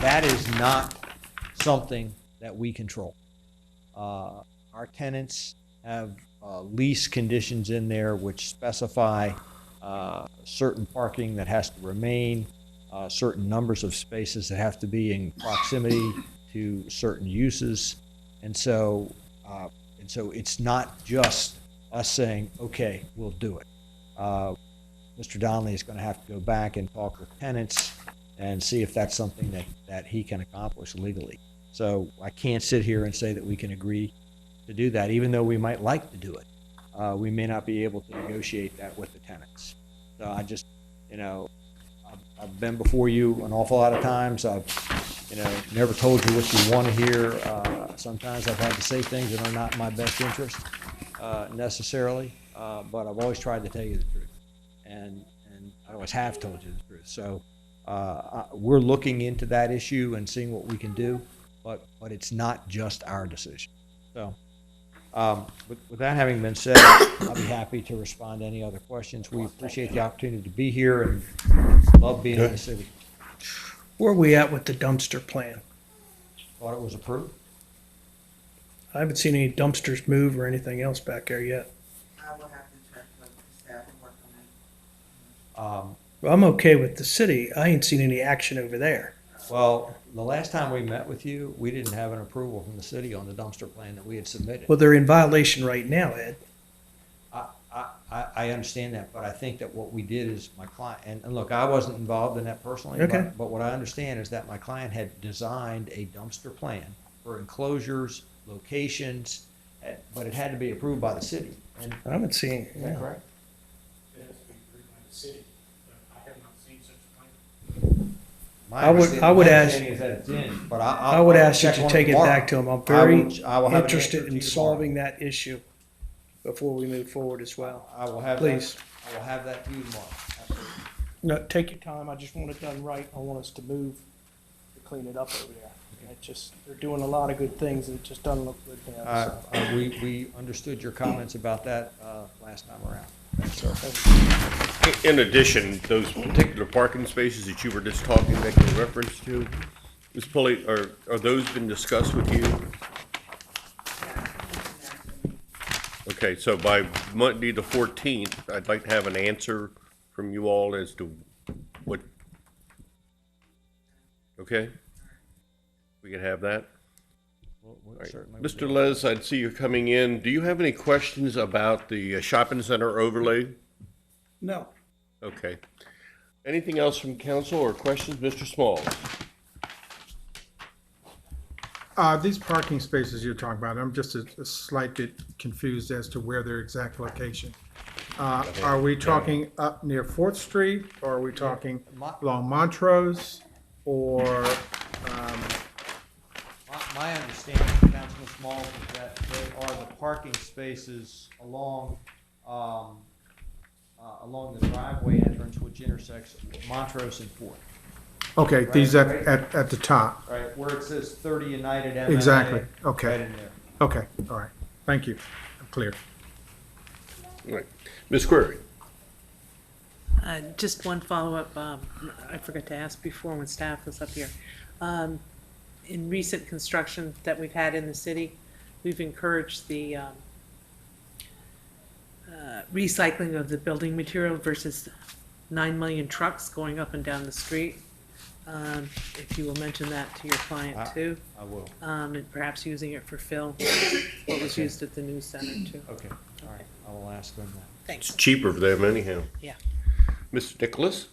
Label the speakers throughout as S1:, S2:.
S1: That is not something that we control. Uh, Our tenants have uh, lease conditions in there which specify uh, certain parking that has to remain, uh, certain numbers of spaces that have to be in proximity to certain uses. And so, uh, and so it's not just us saying, okay, we'll do it. Uh, Mr. Donnelly is going to have to go back and talk with tenants and see if that's something that, that he can accomplish legally. So I can't sit here and say that we can agree to do that, even though we might like to do it. Uh, we may not be able to negotiate that with the tenants. So I just, you know, I've, I've been before you an awful lot of times. I've, you know, never told you what you want to hear. Uh, sometimes I've had to say things that are not in my best interest uh, necessarily, uh, but I've always tried to tell you the truth. And, and I always have told you the truth. So uh, I- we're looking into that issue and seeing what we can do, but, but it's not just our decision. So um, with with that having been said, I'll be happy to respond to any other questions. We appreciate the opportunity to be here and love being in the city.
S2: Where are we at with the dumpster plan?
S1: Thought it was approved?
S2: I haven't seen any dumpsters move or anything else back there yet.
S3: I will have to check with the staff and work on it.
S1: Um,
S2: Well, I'm okay with the city. I ain't seen any action over there.
S1: Well, the last time we met with you, we didn't have an approval from the city on the dumpster plan that we had submitted.
S2: Well, they're in violation right now, Ed.
S1: I, I, I I understand that, but I think that what we did is my client, and, and look, I wasn't involved in that personally. but-
S2: Okay.
S1: But what I understand is that my client had designed a dumpster plan for enclosures, locations, eh, but it had to be approved by the city. And,
S2: I haven't seen,
S1: is that correct?
S4: It has to be approved by the city, but I have not seen such a plan.
S1: My
S2: I would-
S1: understand-
S2: I would
S1: my
S2: ask-
S1: understanding is that it's in, But I, I'll-
S2: I would
S1: I'll
S2: ask you
S1: check
S2: to
S1: on
S2: take it
S1: tomorrow.
S2: back to them. I'm
S1: I
S2: very
S1: will- I will have an answer
S2: interested
S1: to
S2: in
S1: you tomorrow.
S2: solving that issue before we move forward as well.
S1: I will have that-
S2: Please.
S1: I will have that to you tomorrow. Absolutely.
S2: No, take your time. I just want it done right. I want us to move to clean it up over there. It just, they're doing a lot of good things and it just doesn't look good now.
S1: Uh,
S2: so.
S1: uh, We, we understood your comments about that uh, last time around. Thanks, sir.
S5: In addition, those particular parking spaces that you were just talking, making reference to, Ms. Pulley, are, are those been discussed with you?
S3: Yeah, I can mention that to me.
S5: Okay, so by Monday the fourteenth, I'd like to have an answer from you all as to what, okay? We can have that?
S1: We'll- we'll
S5: All right.
S1: certainly-
S5: Mr. Les, I'd see you coming in. Do you have any questions about the uh, shopping center overlay?
S2: No.
S5: Okay. Anything else from council or questions? Mr. Smalls?
S6: Uh, these parking spaces you're talking about, I'm just a a slight bit confused as to where their exact location. Uh, are we talking up near Fourth Street, or are we talking
S1: My-
S6: along Montrose, or, um,
S1: My, my understanding, Councilman Small, is that they are the parking spaces along, um, uh, along the driveway entrance, which intersects Montrose and Fourth,
S6: okay, these
S1: Right,
S6: at,
S1: right.
S6: at, at the top?
S1: right? Where it says thirty United MMA.
S6: Exactly, okay.
S1: Right in there.
S6: Okay, all right, thank you, I'm clear.
S5: All right. Ms. Query?
S7: Uh, Just one follow-up, um, I forgot to ask before when staff was up here. Um, In recent construction that we've had in the city, we've encouraged the um, uh, recycling of the building material versus nine million trucks going up and down the street. Um, If you will mention that to your
S1: Ah.
S7: client too,
S1: I will,
S7: um, and perhaps using it for fill, what was used at the news center too.
S1: okay, all right, I will ask them that.
S7: Thanks.
S5: cheaper for them anyhow.
S7: Yeah.
S5: Mr. Nicholas?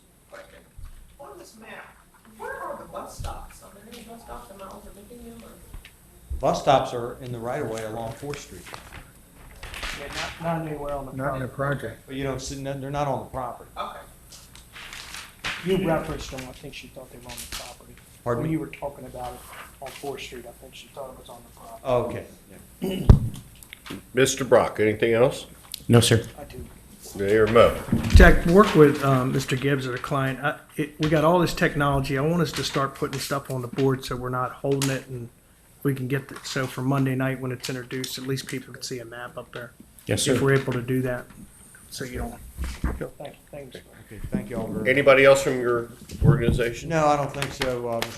S3: On this map, where are the bus stops? Are there any bus stops in Miles or Lincoln or?
S1: Bus stops are in the right of way along Fourth Street,
S2: Not anywhere on the
S6: Not in the project,
S1: but you don't see, they're not on the property.
S3: Okay.
S2: You referenced them, I think she thought they were on the property.
S1: Pardon
S2: When
S1: me?
S2: you were talking about it on Fourth Street, I think she thought it was on the property.
S1: Okay, yeah.
S5: Mr. Brock, anything else?
S8: No, sir.
S2: I do.
S5: Mayor Mo?
S2: Jack, work with um, Mr. Gibbs or the client. I- it- We got all this technology. I want us to start putting stuff on the board so we're not holding it and we can get, it. so for Monday night when it's introduced, at least people can see a map up there.
S8: Yes,
S2: If
S8: sir.
S2: we're able to do that, so you don't. Thank you.
S1: Okay, thank you all very much.
S5: Anybody else from your organization?
S1: No, I don't think so, uh, Mr.